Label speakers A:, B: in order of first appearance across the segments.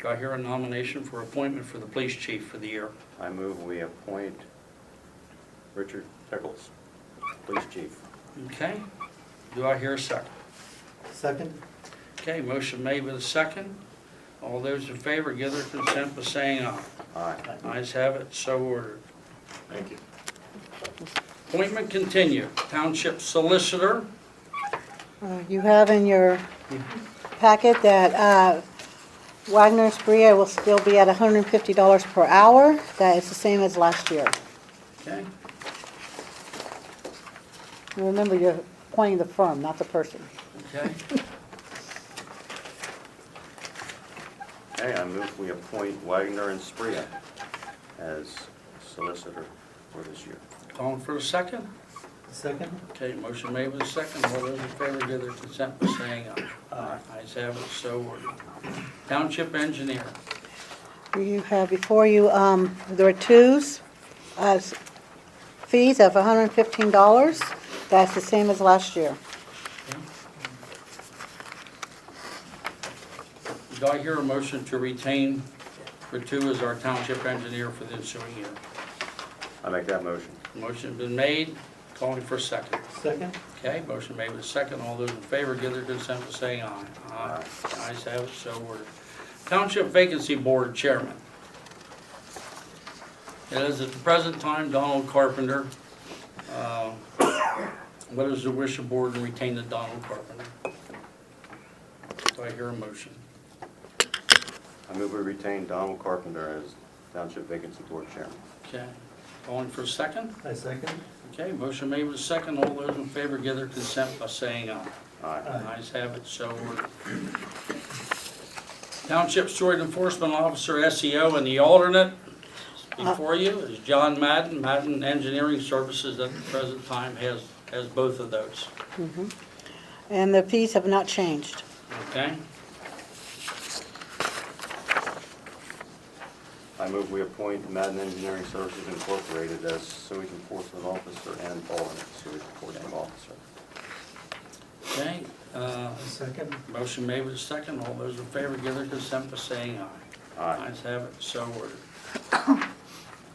A: Do I hear a nomination for appointment for the police chief for the year?
B: I move we appoint Richard Pickles, police chief.
A: Okay. Do I hear a second?
C: Second?
A: Okay, motion made with a second. All those in favor give their consent by saying aye.
B: Aye.
A: Ayes have it, so ordered.
D: Thank you.
A: Appointment continued. Township solicitor,
E: Uh, You have in your packet that uh, Wagner and Spria will still be at $150 per hour. That is the same as last year.
A: okay?
E: Remember, you're appointing the firm, not the person.
A: Okay,
B: Okay, I move we appoint Wagner and Spria as solicitor for this year.
A: calling for a second?
C: Second?
A: Okay, motion made with a second. All those in favor give their consent by saying aye. Aye. Ayes have it, so ordered. Township engineer,
E: You have before you, um, there are twos, uh, s- fees of $115. That's the same as last year.
A: do I hear a motion to retain Ritu as our township engineer for the ensuing year?
B: I make that motion.
A: Motion been made, calling for a second.
C: Second?
A: Okay, motion made with a second. All those in favor give their consent by saying aye. Aye. Ayes have it, so ordered. Township Vacancy Board Chairman. It is at the present time Donald Carpenter. Uh, What is the wish of board in retaining Donald Carpenter? Do I hear a motion?
B: I move we retain Donald Carpenter as township vacancy board chairman.
A: Okay, calling for a second?
C: I second?
A: Okay, motion made with a second. All those in favor give their consent by saying aye.
B: Aye.
A: Ayes have it, so ordered. Township Sword Enforcement Officer SEO and the alternate before you is John Madden. Madden Engineering Services at the present time has, has both of those,
E: And the fees have not changed.
A: okay?
B: I move we appoint Madden Engineering Services Incorporated as sewage enforcement officer and alternate sewage enforcement officer.
A: Okay, uh,
C: I second?
A: motion made with second. All those in favor give their consent by saying aye.
B: Aye.
A: Ayes have it, so ordered.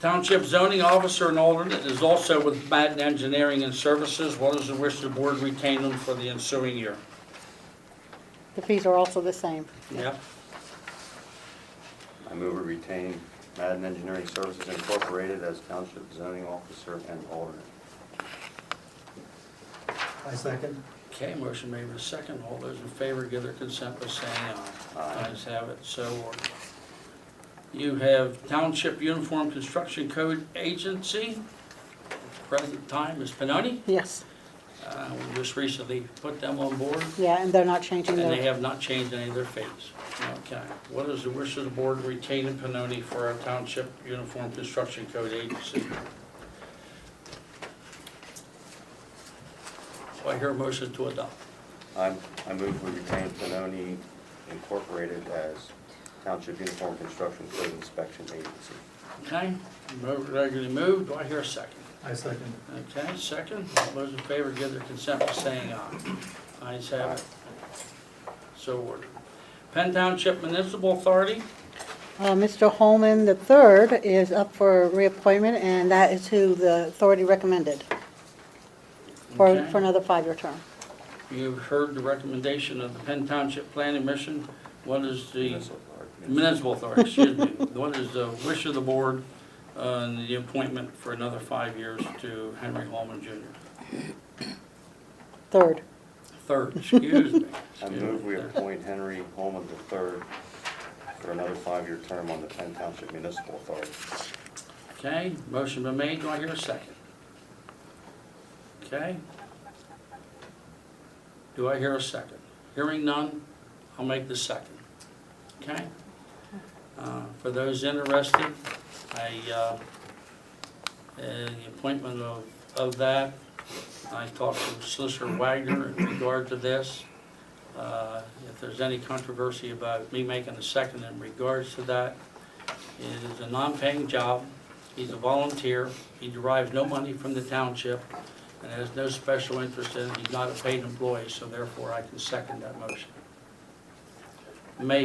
A: Township Zoning Officer and alternate is also with Madden Engineering and Services. What is the wish of the board retain them for the ensuing year?
E: The fees are also the same.
A: Yep.
B: I move we retain Madden Engineering Services Incorporated as township zoning officer and alternate.
C: I second?
A: Okay, motion made with a second. All those in favor give their consent by saying aye.
B: Aye.
A: Ayes have it, so ordered. You have Township Uniform Construction Code Agency. Present time is Pinoni.
E: Yes,
A: Uh, We just recently put them on board,
E: yeah, and they're not changing
A: and they
E: their,
A: have not changed any of their fees. Okay. What is the wish of the board retaining Pinoni for our Township Uniform Construction Code Agency? Do I hear a motion to adopt?
B: I'm- I move we retain Benoni Incorporated as township uniform construction code inspection agency.
A: Okay, mo- regularly moved, do I hear a second?
C: I second.
A: Okay, second, all those in favor give their consent by saying aye. Ayes have it. So ordered. Penn Township Municipal Authority,
E: uh, Mr. Holman III is up for reappointment, and that is who the authority recommended for,
A: Okay.
E: for another five-year term.
A: you've heard the recommendation of the Penn Township Planning Mission. What is the,
B: Municipal authority.
A: Municipal Authority, excuse me, what is the wish of the board on the appointment for another five years to Henry Holman Jr.?
E: Third,
A: Third, excuse me.
B: I
A: excuse
B: move
A: me.
B: we appoint Henry Holman III for another five-year term on the Penn Township Municipal Authority.
A: Okay, motion been made, do I hear a second? Okay. Do I hear a second? Hearing none, I'll make the second. Okay? Uh, For those interested, I, uh, uh, the appointment of, of that, I talked to Solicitor Wagner in regard to this. Uh, If there's any controversy about me making a second in regards to that, it is a non-paying job. He's a volunteer, he derives no money from the township, and has no special interest in it, he's not a paid employee, so therefore I can second that motion. May